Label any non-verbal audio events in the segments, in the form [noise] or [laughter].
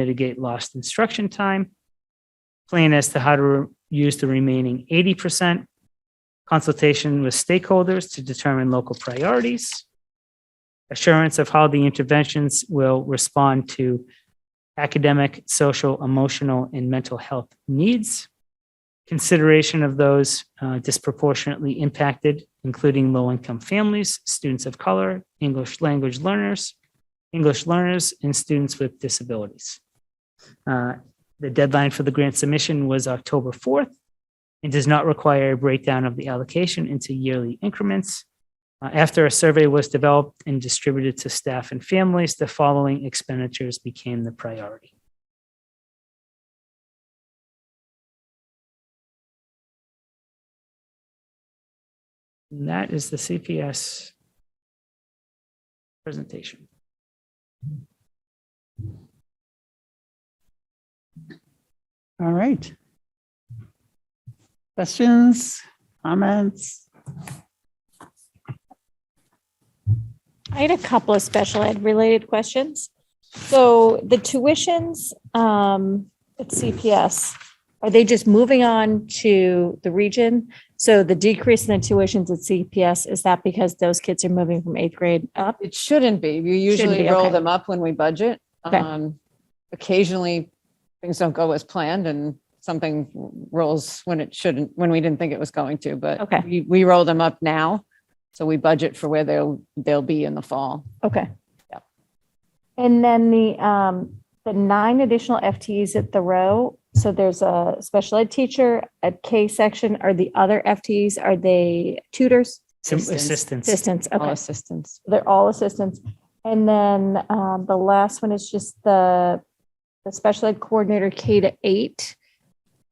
mitigate lost instruction time. Plan as to how to re- use the remaining eighty percent. Consultation with stakeholders to determine local priorities. Assurance of how the interventions will respond to academic, social, emotional, and mental health needs. Consideration of those uh, disproportionately impacted, including low-income families, students of color, English language learners, English learners, and students with disabilities. Uh, The deadline for the grant submission was October 4th and does not require a breakdown of the allocation into yearly increments. Uh, After a survey was developed and distributed to staff and families, the following expenditures became the priority. And that is the CPS presentation. All right. Questions, comments? I had a couple of special ed related questions. So the tuitions um, at CPS, are they just moving on to the region? So the decrease in the tuitions at CPS, is that because those kids are moving from eighth grade up? It shouldn't be. You usually be, roll okay. them up when we budget. Okay. Um, Occasionally, things don't go as planned and something rolls when it shouldn't, when we didn't think it was going to, but Okay. we, we roll them up now. So we budget for where they'll, they'll be in the fall. Okay. Yep. And then the, um, the nine additional FTEs at the row. So there's a special ed teacher at K section. Are the other FTEs, are they tutors? Some Assistance. assistance. Assistants, All okay. assistance. They're all assistants. And then um, the last one is just the, the special ed coordinator K to eight.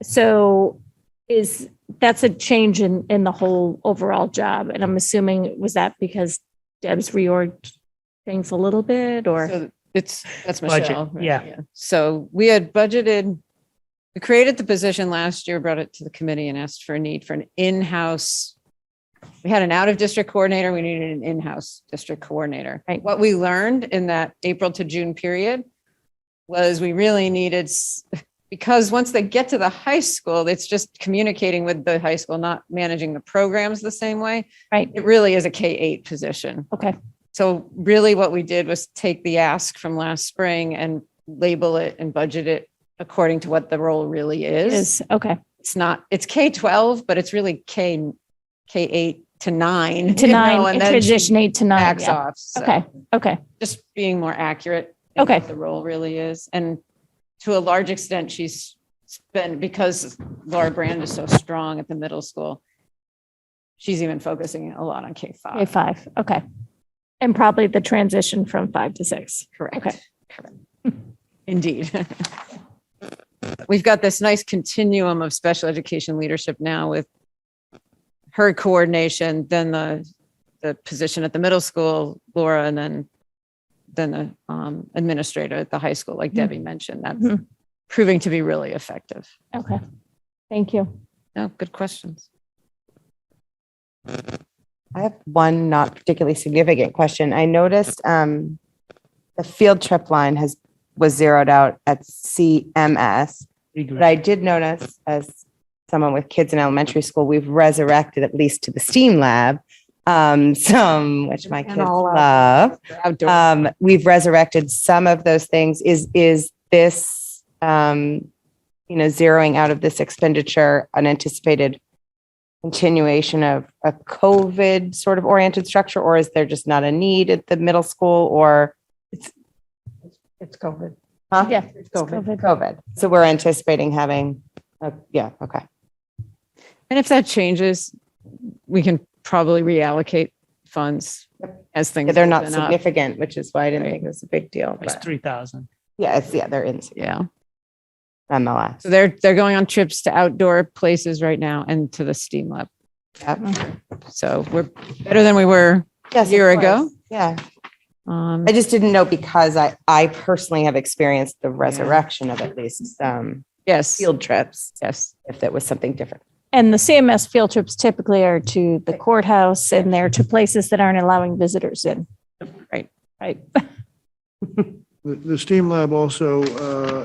So is, that's a change in, in the whole overall job. And I'm assuming, was that because Deb's reorged things a little bit or? So It's, that's Budget, Michelle. right? yeah. So we had budgeted, we created the position last year, brought it to the committee and asked for a need for an in-house. We had an out-of-district coordinator, we needed an in-house district coordinator. Right. What we learned in that April to June period was we really needed, s- because once they get to the high school, it's just communicating with the high school, not managing the programs the same way. Right. It really is a K-8 position. Okay, So really what we did was take the ask from last spring and label it and budget it according to what the role really is. is, okay, It's not, it's K-12, but it's really K, K-8 to nine. to you know, nine, and then she transition eight to nine. Backs yeah. off. So Okay, okay, Just being more accurate. in Okay. what The role really is. And to a large extent, she's been, because Laura Brand is so strong at the middle school, she's even focusing a lot on K-5. K five, okay. And probably the transition from five to six. Okay. Correct. Correct. Indeed. [laughs] We've got this nice continuum of special education leadership now with her coordination, then the, the position at the middle school, Laura, and then, then the um, administrator at the high school, like Mhm. Debbie Mm-hmm. mentioned, that's Mhm. proving to be really effective. Okay, thank you. No, good questions. I have one not particularly significant question. I noticed um, the field trip line has, was zeroed out at CMS. But I did notice as someone with kids in elementary school, we've resurrected at least to the STEAM lab, um, [laughs] some, which my kids love. Outdoor, Um, we've resurrected some of those things. Is, is this, um, you know, zeroing out of this expenditure an anticipated continuation of a COVID sort of oriented structure, or is there just not a need at the middle school or? It's COVID. Uh, huh? Yeah. It's COVID. COVID. So we're anticipating having, a- yeah, okay. and if that changes, we can probably reallocate funds as Yeah, things. They're not open up. significant, which is why I didn't think it was a big deal. It's but- 3,000. Yeah, it's, yeah, they're insignificant Yeah. nonetheless. So they're they're going on trips to outdoor places right now and to the steam lab. Yep. So we're better than we were. Yes, of Year course. ago? Yeah. Um, I just didn't know because I, I personally have experienced the resurrection of at least some yes, field trips, yes, if that was something different. And the CMS field trips typically are to the courthouse and they're to places that aren't allowing visitors in. Right. Right. The, the STEAM lab also, uh,